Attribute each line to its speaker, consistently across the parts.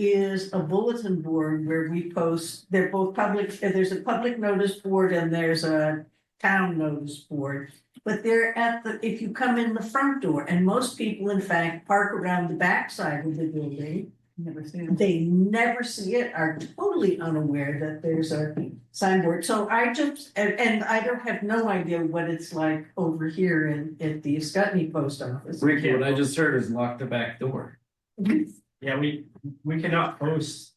Speaker 1: is a bulletin board where we post, they're both public, uh, there's a public notice board and there's a town notice board. But they're at the, if you come in the front door, and most people in fact park around the backside of the building.
Speaker 2: Never seen it.
Speaker 1: They never see it, are totally unaware that there's a signboard, so I just, and and I don't have no idea what it's like over here in at the Scottney post office.
Speaker 3: Ricky, what I just heard is lock the back door.
Speaker 4: Yeah, we, we cannot post.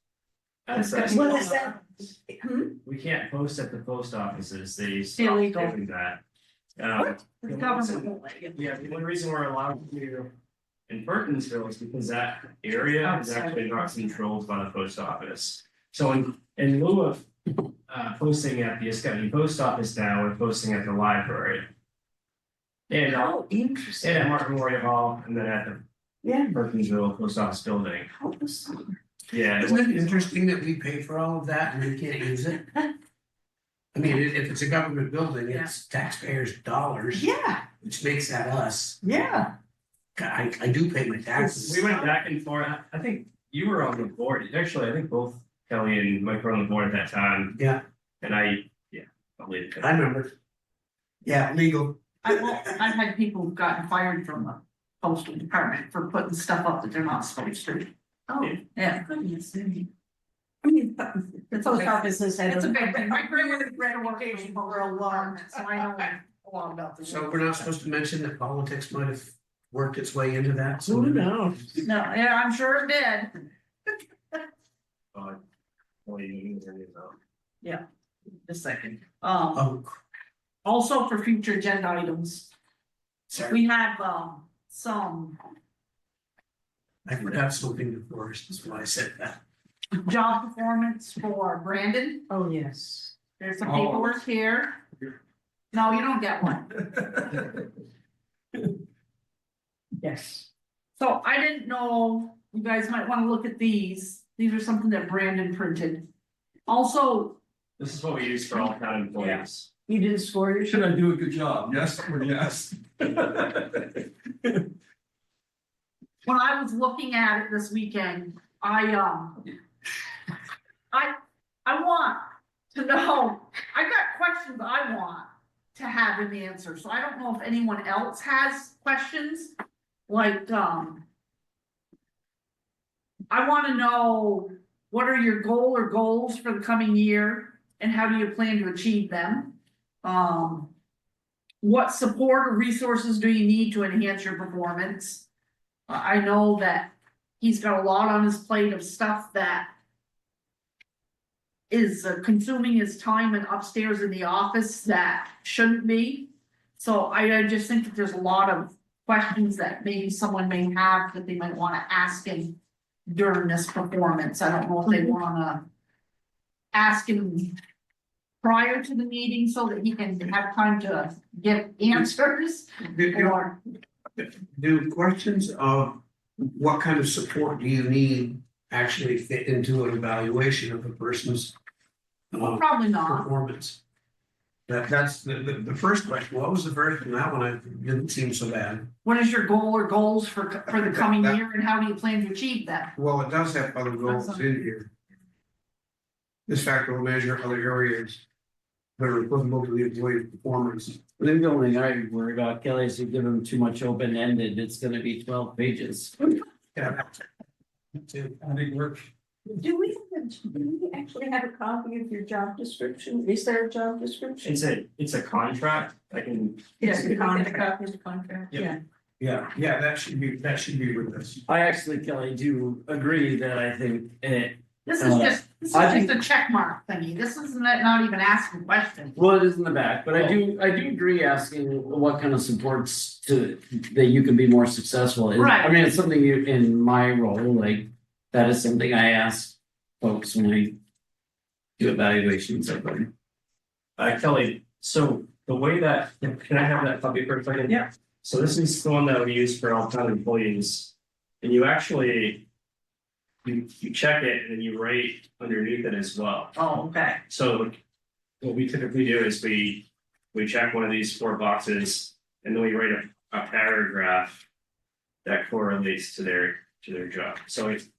Speaker 4: outside.
Speaker 1: What is that? Hmm?
Speaker 4: We can't post at the post offices, they stopped
Speaker 2: Illegal.
Speaker 4: doing that. Um,
Speaker 2: The government.
Speaker 4: yeah, the only reason we're allowed to in Burtonsville is because that area
Speaker 1: Oh,
Speaker 4: is actually not controlled by the post office. So in, in lieu of, uh, posting at the Escutcheon Post Office now, we're posting at the library. And, uh,
Speaker 1: Oh, interesting.
Speaker 4: and at Martin Memorial Hall, and then at the
Speaker 1: Yeah.
Speaker 4: Burtonsville Post Office Building,
Speaker 1: how bizarre.
Speaker 4: yeah. it's-
Speaker 5: Isn't it interesting that we pay for all of that and we can't use it? I mean, if if it's a government building, it's taxpayers' dollars,
Speaker 1: Yeah,
Speaker 5: which makes that us.
Speaker 1: yeah.
Speaker 5: I I do pay my taxes.
Speaker 4: We went back and forth, I think you were on the board, actually, I think both Kelly and Mike were on the board at that time,
Speaker 5: Yeah,
Speaker 4: and I, yeah, probably. it.
Speaker 5: I remember. Yeah, legal.
Speaker 2: I will, I've had people who've gotten fired from the postal department for putting stuff up that they're not supposed to.
Speaker 1: Oh,
Speaker 2: Yeah.
Speaker 1: goodness. I mean, but the post office has had.
Speaker 2: It's a big thing. My grandmother
Speaker 1: great reputation for a long.
Speaker 2: So I know a lot about this.
Speaker 5: So we're not supposed to mention that politics might have worked its way into that. so-
Speaker 1: knows?
Speaker 2: No, yeah, I'm sure it did.
Speaker 4: Uh, well, you- you know.
Speaker 2: The second, um,
Speaker 5: Oh,
Speaker 2: also for future agenda items,
Speaker 5: sorry,
Speaker 2: we have, um, some
Speaker 5: I forgot something before, that's why I said that.
Speaker 2: job performance for Brandon.
Speaker 1: Oh, yes.
Speaker 2: There's some
Speaker 5: Oh.
Speaker 2: paperwork here. No, you don't get one.
Speaker 1: Yes.
Speaker 2: So I didn't know, you guys might wanna look at these, these are something that Brandon printed. Also,
Speaker 4: This is what we use for all town employees.
Speaker 1: You didn't score your.
Speaker 3: Should I do a good job? Yes or yes?
Speaker 2: when I was looking at it this weekend, I, um. I, I want to know, I got questions I want to have an answer, so I don't know if anyone else has questions, like, um. I wanna know, what are your goal or goals for the coming year, and how do you plan to achieve them? Um. What support or resources do you need to enhance your performance? I I know that he's got a lot on his plate of stuff that is uh, consuming his time and upstairs in the office that shouldn't be. So I, I just think that there's a lot of questions that maybe someone may have that they might wanna ask him during this performance. I don't know if they wanna ask him prior to the meeting so that he can have time to get answers
Speaker 5: You- you-
Speaker 2: or.
Speaker 5: Do questions of what kind of support do you need actually fit into an evaluation of a person's uh,
Speaker 2: Probably not.
Speaker 5: performance? That, that's the, the, the first question. What was the verdict on that one? It didn't seem so bad.
Speaker 2: What is your goal or goals for, for the coming
Speaker 5: That-
Speaker 2: year and how do you plan to achieve that?
Speaker 5: Well, it does have other goals in here. This factor will measure other areas that are applicable to the employee's performance.
Speaker 3: Maybe the only thing I worry about Kelly is you give him too much open ended, it's gonna be twelve pages.
Speaker 5: Yeah.
Speaker 3: Big work.
Speaker 1: Do we, have- do we actually have a copy of your job description? Is there a job description?
Speaker 4: It's a, it's a contract, I can,
Speaker 1: Yes,
Speaker 2: Yeah,
Speaker 1: the
Speaker 2: you can get a
Speaker 1: contract. It's a contract.
Speaker 4: Yeah.
Speaker 1: Yeah.
Speaker 5: Yeah, yeah, that should be, that should be with us.
Speaker 3: I actually, Kelly, do agree that I think eh,
Speaker 2: This is
Speaker 3: Uh,
Speaker 2: just, this is
Speaker 3: I
Speaker 2: just a check mark thingy. This is not not even asking questions.
Speaker 3: Well, it is in the back, but I do, I do agree asking what kind of supports to, that you can be more successful. in. I
Speaker 2: Right.
Speaker 3: mean, it's something you, in my role, like, that is something I ask folks when I do evaluations of them.
Speaker 4: uh, Kelly, so the way that, can I have that copy for a second?
Speaker 3: Yeah.
Speaker 4: So this is the one that we use for all town employees, and you actually. You, you check it and then you write underneath it as well.
Speaker 2: Oh, okay.
Speaker 4: So what we typically do is we, we check one of these four boxes and then we write a, a paragraph that correlates to their, to their job. So it's,